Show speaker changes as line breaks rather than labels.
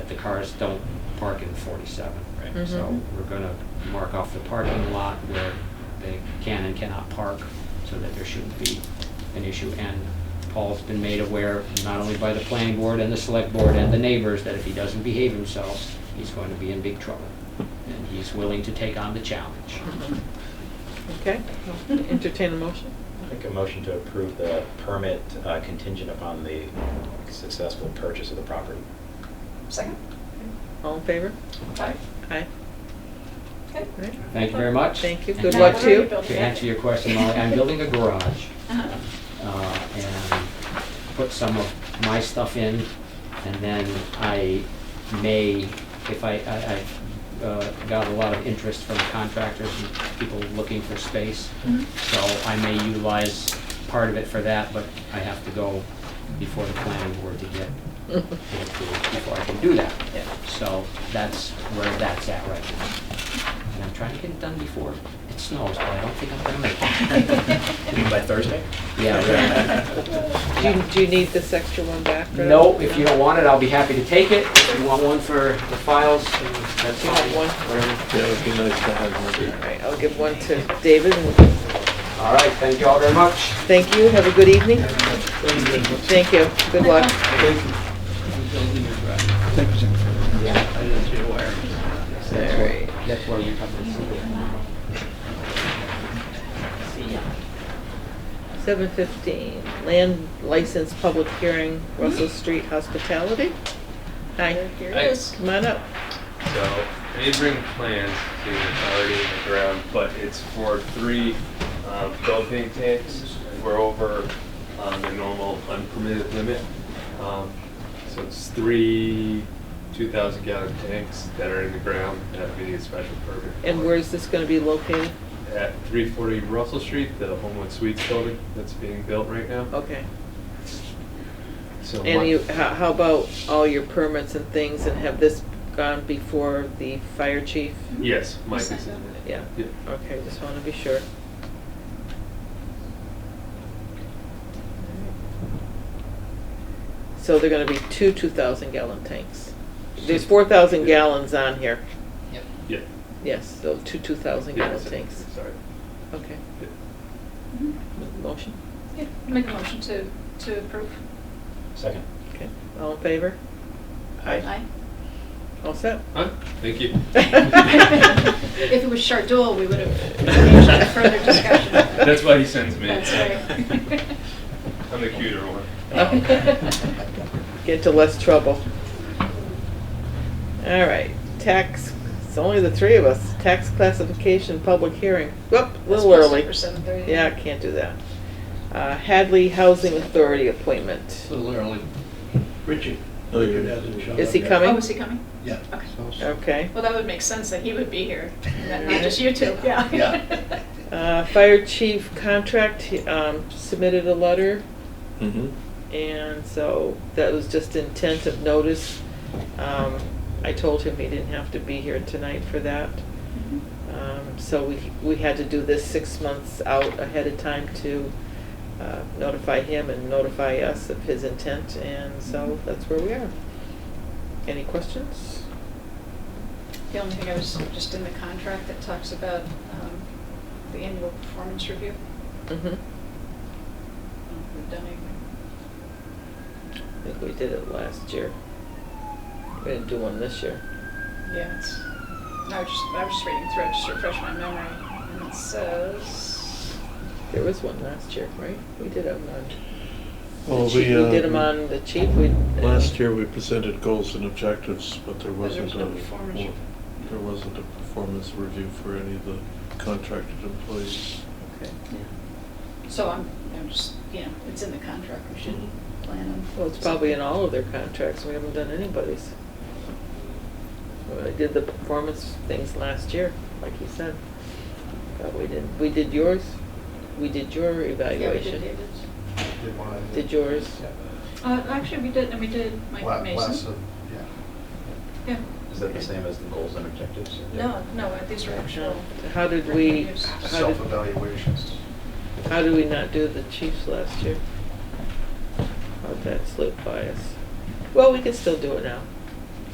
the cars don't park in 47, right? So
Mhm.
we're going to mark off the parking lot where they can and cannot park so that there shouldn't be an issue. And Paul's been made aware, not only by the planning board and the select board and the neighbors, that if he doesn't behave himself, he's going to be in big trouble. And he's willing to take on the challenge.
Okay, entertain a motion.
Make a motion to approve the permit uh, contingent upon the successful purchase of the property.
Second?
All in favor?
Aye.
Aye. All
Okay.
right.
Thank you very much.
Thank you.
And
Good
to-
luck to you. Uh-huh.
To answer your question, Molly, I'm building a garage. uh, and put some of my stuff in, and then I may, if I, I, I uh, got a lot of interest from contractors and people looking for space,
Mm-hmm.
Mhm.
so I may utilize part of it for that, but I have to go before the planning board to get it approved before I can do that.
Yeah.
So that's where that's at right now. And I'm trying to get it done before it snows, but I don't think I'm gonna make it.
You mean by Thursday?
Yeah, right.
Do you, do you need this extra one back? or-
No, if you don't want it, I'll be happy to take it. If you want one for the files, then that's
You want
fine.
one?
Whatever.
Yeah, it would be nice to have
All
one.
right, I'll give one to David. and-
All right, thank you all very much.
Thank you, have a good evening. Thank you, good luck.
Thank you, Jennifer.
That's where, that's where we come to see it.
Seven fifteen, land license public hearing, Russell Street Hospitality. Hi,
Here it
Thanks.
is.
come on up.
So I did bring plans to it's already in the ground, but it's for three um, propane tanks. We're over um, the normal unpermitted limit. Um, So it's three 2,000 gallon tanks that are in the ground that we need a special permit.
And
for.
where's this gonna be located?
At 340 Russell Street, the Homewood Suites building that's being built right now.
Okay.
So my-
And you, how, how about all your permits and things and have this gone before the fire chief?
Yes, Mike is in it.
Yeah,
Yeah.
okay, just wanna be sure. So they're gonna be two two thousand gallon tanks. There's four thousand gallons on here,
Yeah.
yes, so two two thousand
Yeah,
gallon
so-
tanks,
Sorry.
okay.
Yeah.
Mhm.
Motion,
Yeah, Make a motion to, to approve.
Second.
okay, all in favor?
Aye.
All set?
Huh? Thank you.
If it was Shardul, we would have engaged in further discussion.
That's why he sends me.
That's right.
I'm the cuter one.
get into less trouble. All right, tax, it's only the three of us, tax classification, public hearing. Whoop, a little early.
That's supposed to be for 7:30.
Yeah, I can't do that. Uh, Hadley Housing Authority appointment.
A little early. Richard.
Oh, you're-
Richard hasn't shown
Is he
up yet.
coming?
Oh, is he Oh. coming?
Yeah.
Okay.
Okay.
Well, that would make sense that he would be here, not not just you two, yeah.
Yeah.
Uh, Fire chief contract, he, um, submitted a letter,
Mm-hmm.
Mhm.
and so that was just intent of notice. Um, I told him he didn't have to be here tonight for that.
Mhm.
Um, So we, we had to do this six months out ahead of time to uh, notify him and notify us of his intent, and so that's where we are. Any questions?
The only thing I was, just in the contract that talks about um, the annual performance review.
Mhm.
I don't know if we've done anything.
I think we did it last year. We're gonna do one this year.
Yeah, it's, no, I was just, I was just reading through, it just to refresh my memory, and it says,
There was one last year, right? We did it on,
Well,
the chief, we
uh,
did them on the uh, chief, we.
Last year, we presented goals and objectives, but there
But there
wasn't
was
a,
no performance
well,
review.
there wasn't a performance review for any of the contracted employees.
Okay.
so I'm, I'm just, you know, it's in the contract, we should plan on.
Well, it's probably in all of their contracts, we haven't done anybody's. Well, I did the performance things last year, like you said. But we did, we did yours, we did your
Yeah, we did
evaluation.
David's.
Did one of the-
Did yours?
Yeah.
Uh, actually, we did, and we did
La-
Mike
last
Mason.
of- Yeah.
Yeah,
Is that the same as the goals and objectives?
no, no, these are actual.
How did we,
reviews.
how did,
Self-evaluations.
how did we not do the chiefs last year? How'd that slip by us? Well, we can still do it now.